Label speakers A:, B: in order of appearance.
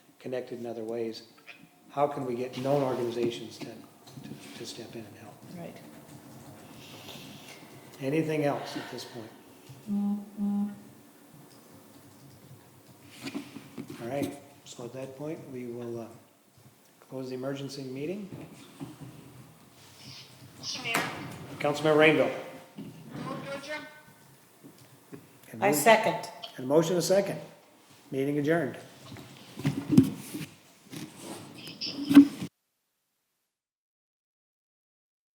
A: connected in other ways, how can we get known organizations to, to- to step in and help?
B: Right.
A: Anything else at this point? All right, so at that point, we will uh, close the emergency meeting.
C: Mr. Mayor,
A: Councilmember Rainville.
C: move to adjourn.
A: And
B: I
A: move-
B: second.
A: And motion a second. Meeting adjourned.